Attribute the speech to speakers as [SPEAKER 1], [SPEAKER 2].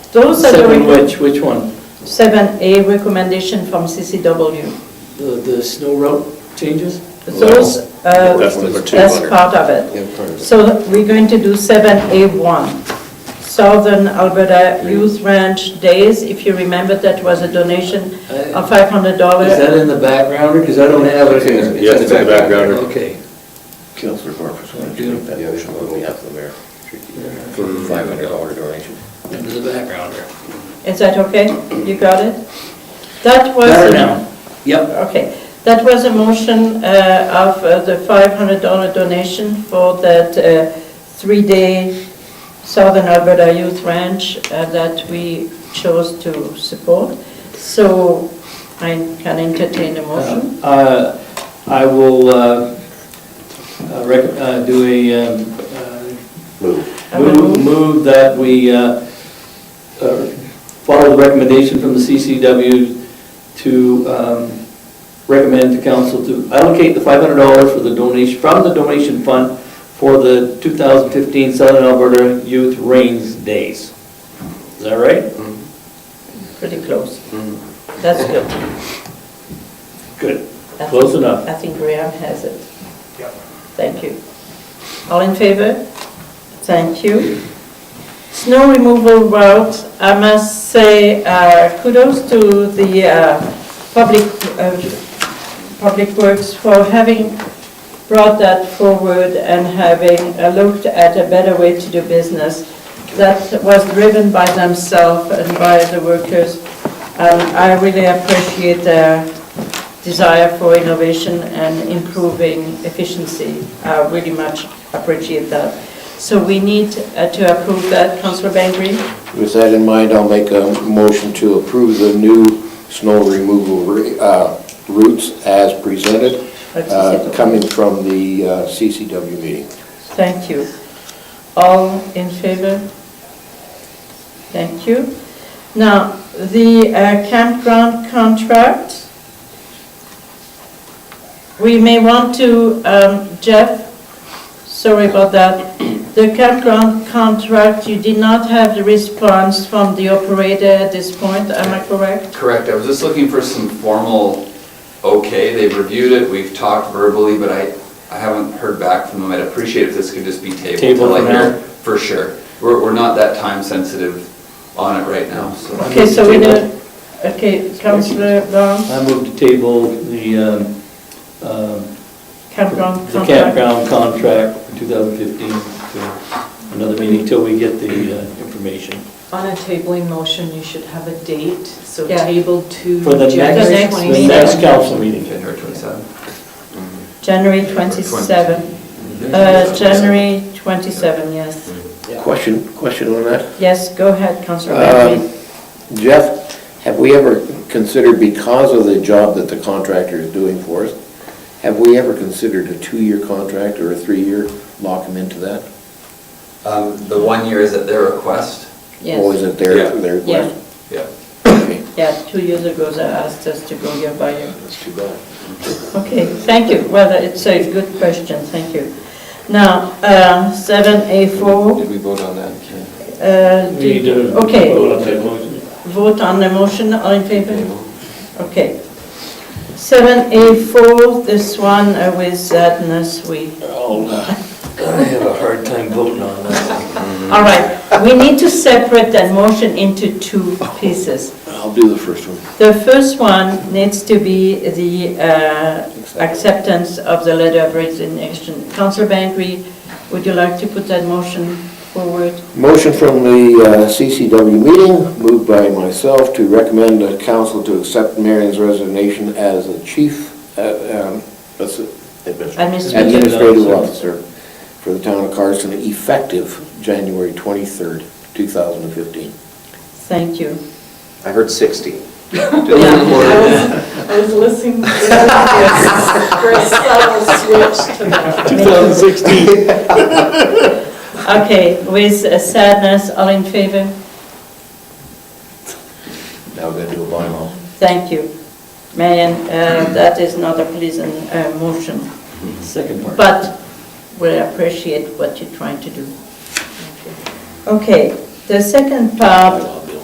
[SPEAKER 1] Those are the,
[SPEAKER 2] Seven
[SPEAKER 1] rec-
[SPEAKER 2] which, which one?
[SPEAKER 1] seven A recommendation from CCW.
[SPEAKER 2] The, the snow route changes?
[SPEAKER 1] Those, uh,
[SPEAKER 3] That's number two
[SPEAKER 1] that's
[SPEAKER 3] under-
[SPEAKER 1] part of it.
[SPEAKER 3] Yeah, part of it.
[SPEAKER 1] So we're going to do seven A one, Southern Alberta Youth Ranch Days. If you remember, that was a donation
[SPEAKER 2] Uh,
[SPEAKER 1] of five hundred dollars.
[SPEAKER 2] Is that in the background, because I don't have it here?
[SPEAKER 3] Yes, it's in the background.
[SPEAKER 2] Okay.
[SPEAKER 4] Counselor Barfus, want to
[SPEAKER 2] Yeah.
[SPEAKER 4] do that motion on behalf of the mayor? For the $500 donation.
[SPEAKER 2] Into the background here.
[SPEAKER 1] Is that okay? You got it? That was.
[SPEAKER 2] Better now. Yep.
[SPEAKER 1] Okay, that was a motion uh, of uh, the $500 donation for that uh, three-day Southern Alberta Youth Ranch uh, that we chose to support. So I can entertain a motion.
[SPEAKER 2] Uh, I will uh, uh, rec- uh, do a um, uh,
[SPEAKER 4] Move.
[SPEAKER 1] I will
[SPEAKER 2] Move
[SPEAKER 1] move.
[SPEAKER 2] move that we uh, uh, follow the recommendation from the CCW to um, recommend to council to allocate the $500 for the donation, from the donation fund for the 2015 Southern Alberta Youth Rains Days. Is that right?
[SPEAKER 1] Pretty close. That's good.
[SPEAKER 2] Good.
[SPEAKER 1] I
[SPEAKER 2] Close
[SPEAKER 1] think-
[SPEAKER 2] enough.
[SPEAKER 1] I think Graham has it. Thank you. All in favor? Thank you. Snow removal route, I must say uh, kudos to the uh, public, uh, Public Works for having brought that forward and having uh, looked at a better way to do business that was driven by themselves and by the workers. And Um, I really appreciate their desire for innovation and improving efficiency. I really much appreciate that. So we need uh, to approve that, Councillor Bangry.
[SPEAKER 4] With that in mind, I'll make a motion to approve the new snow removal re- uh, routes as presented, uh, coming from the uh, CCW meeting.
[SPEAKER 1] Thank you. All in favor? Thank you. Now, the uh, campground contract, we may want to, um, Jeff, sorry about that. The campground contract, you did not have the response from the operator at this point, am I correct?
[SPEAKER 5] Correct, I was just looking for some formal, okay, they've reviewed it, we've talked verbally, but I, I haven't heard back from them. I'd appreciate if this could just be tabled.
[SPEAKER 2] Table
[SPEAKER 5] till I
[SPEAKER 2] for
[SPEAKER 5] hear-
[SPEAKER 2] now.
[SPEAKER 5] For sure. We're, we're not that time sensitive on it right now, so.
[SPEAKER 1] Okay, so we know, okay, Councillor Brown,
[SPEAKER 2] I move to table the um, um,
[SPEAKER 1] campground
[SPEAKER 2] the
[SPEAKER 1] contract.
[SPEAKER 2] campground contract for 2015 to another meeting till we get the uh, information.
[SPEAKER 6] On a tabling motion, you should have a date, so
[SPEAKER 1] Yeah.
[SPEAKER 6] tabled to
[SPEAKER 2] For the
[SPEAKER 6] January
[SPEAKER 1] next- the
[SPEAKER 6] 27th.
[SPEAKER 2] next council meeting.
[SPEAKER 5] January twenty-seventh.
[SPEAKER 1] January 27. Uh, January 27, yes.
[SPEAKER 4] Question, question on that?
[SPEAKER 1] Yes, go ahead, Councillor
[SPEAKER 4] Um,
[SPEAKER 1] Bentley.
[SPEAKER 4] Jeff, have we ever considered, because of the job that the contractor is doing for us, have we ever considered a two-year contract or a three-year, lock them into that?
[SPEAKER 5] Um, the one year is at their request.
[SPEAKER 4] Or
[SPEAKER 1] Yes,
[SPEAKER 4] is it their,
[SPEAKER 5] Yeah.
[SPEAKER 4] their
[SPEAKER 1] yeah,
[SPEAKER 4] request?
[SPEAKER 5] Yeah.
[SPEAKER 4] Okay.
[SPEAKER 1] yeah, two years ago they asked us to go year by year.
[SPEAKER 4] That's too bad.
[SPEAKER 1] Okay, thank you. Well, it's a good question, thank you. Now, uh, 7A4,
[SPEAKER 3] Did we vote on that?
[SPEAKER 1] uh,
[SPEAKER 2] We need to
[SPEAKER 1] okay.
[SPEAKER 2] vote on that motion.
[SPEAKER 1] Vote on the motion, all in favor? Okay. 7A4, this one uh, with sadness we
[SPEAKER 2] Oh, I have a hard time voting on that.
[SPEAKER 1] All right, we need to separate that motion into two pieces.
[SPEAKER 4] I'll do the first one.
[SPEAKER 1] The first one needs to be the uh, acceptance of the letter of resignation. Councillor Bangry, would you like to put that motion forward?
[SPEAKER 4] Motion from the uh, CCW meeting, moved by myself to recommend the council to accept Marion's resignation as the chief uh, um, that's it,
[SPEAKER 1] Administrative.
[SPEAKER 4] administrative officer for the town of Carson, effective January 23rd, 2015.
[SPEAKER 1] Thank you.
[SPEAKER 7] I heard 60.
[SPEAKER 6] I was listening for a subtle switch to that.
[SPEAKER 2] 2016.
[SPEAKER 1] Okay, with uh, sadness, all in favor?
[SPEAKER 4] Now we're going to do a bylaw.
[SPEAKER 1] Thank you. Marion, uh, that is not a pleasant uh, motion.
[SPEAKER 2] Second part.
[SPEAKER 1] But we appreciate what you're trying to do. Okay, the second part